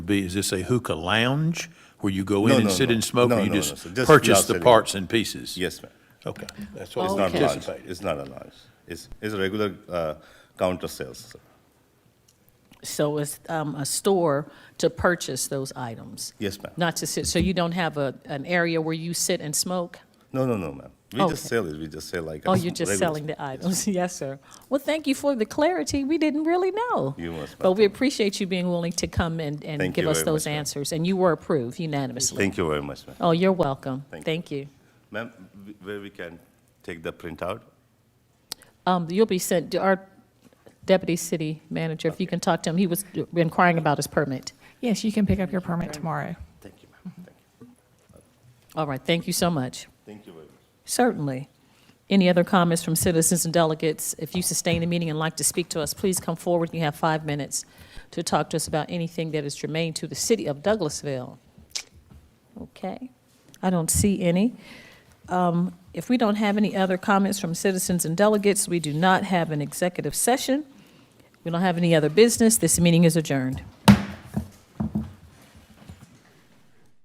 be, is this a hookah lounge where you go in No, and no, sit no. and smoke, No, or you no, no, sir. just Just the purchase the outside. parts and pieces? Yes, ma'am. Okay, that's It's Oh, what I not a anticipated. lounge. It's not a lounge. It's, it's a regular uh, counter sales. sir. So it's um, a store to purchase those items, Yes, ma'am. not to sit, so you don't have a, an area where you sit and smoke? No, no, no, ma'am. We just Oh, Okay. sell it. We just sell like. Oh, a you're just regular- selling the Yes, items, yes, sir. Well, thank you for the clarity, we didn't really know. You must But we welcome. appreciate you being willing to come and, and Thank give you us very those much, ma'am. answers, and you were approved unanimously. Thank you very much, ma'am. Oh, you're welcome, Thank you. thank you. Ma'am, w- where we can take the printout? Um, You'll be sent, our deputy city manager, if you can talk to him, he was inquiring about his permit. Yes, you can pick up your permit tomorrow. Thank you, ma'am. Thank you. All right, thank you so much. Thank you very much. Certainly. Any other comments from citizens and delegates? If you sustain the meeting and like to speak to us, please come forward. You have five minutes to talk to us about anything that is germane to the city of Douglasville. Okay, I don't see any. Um, If we don't have any other comments from citizens and delegates, we do not have an executive session. We don't have any other business. This meeting is adjourned.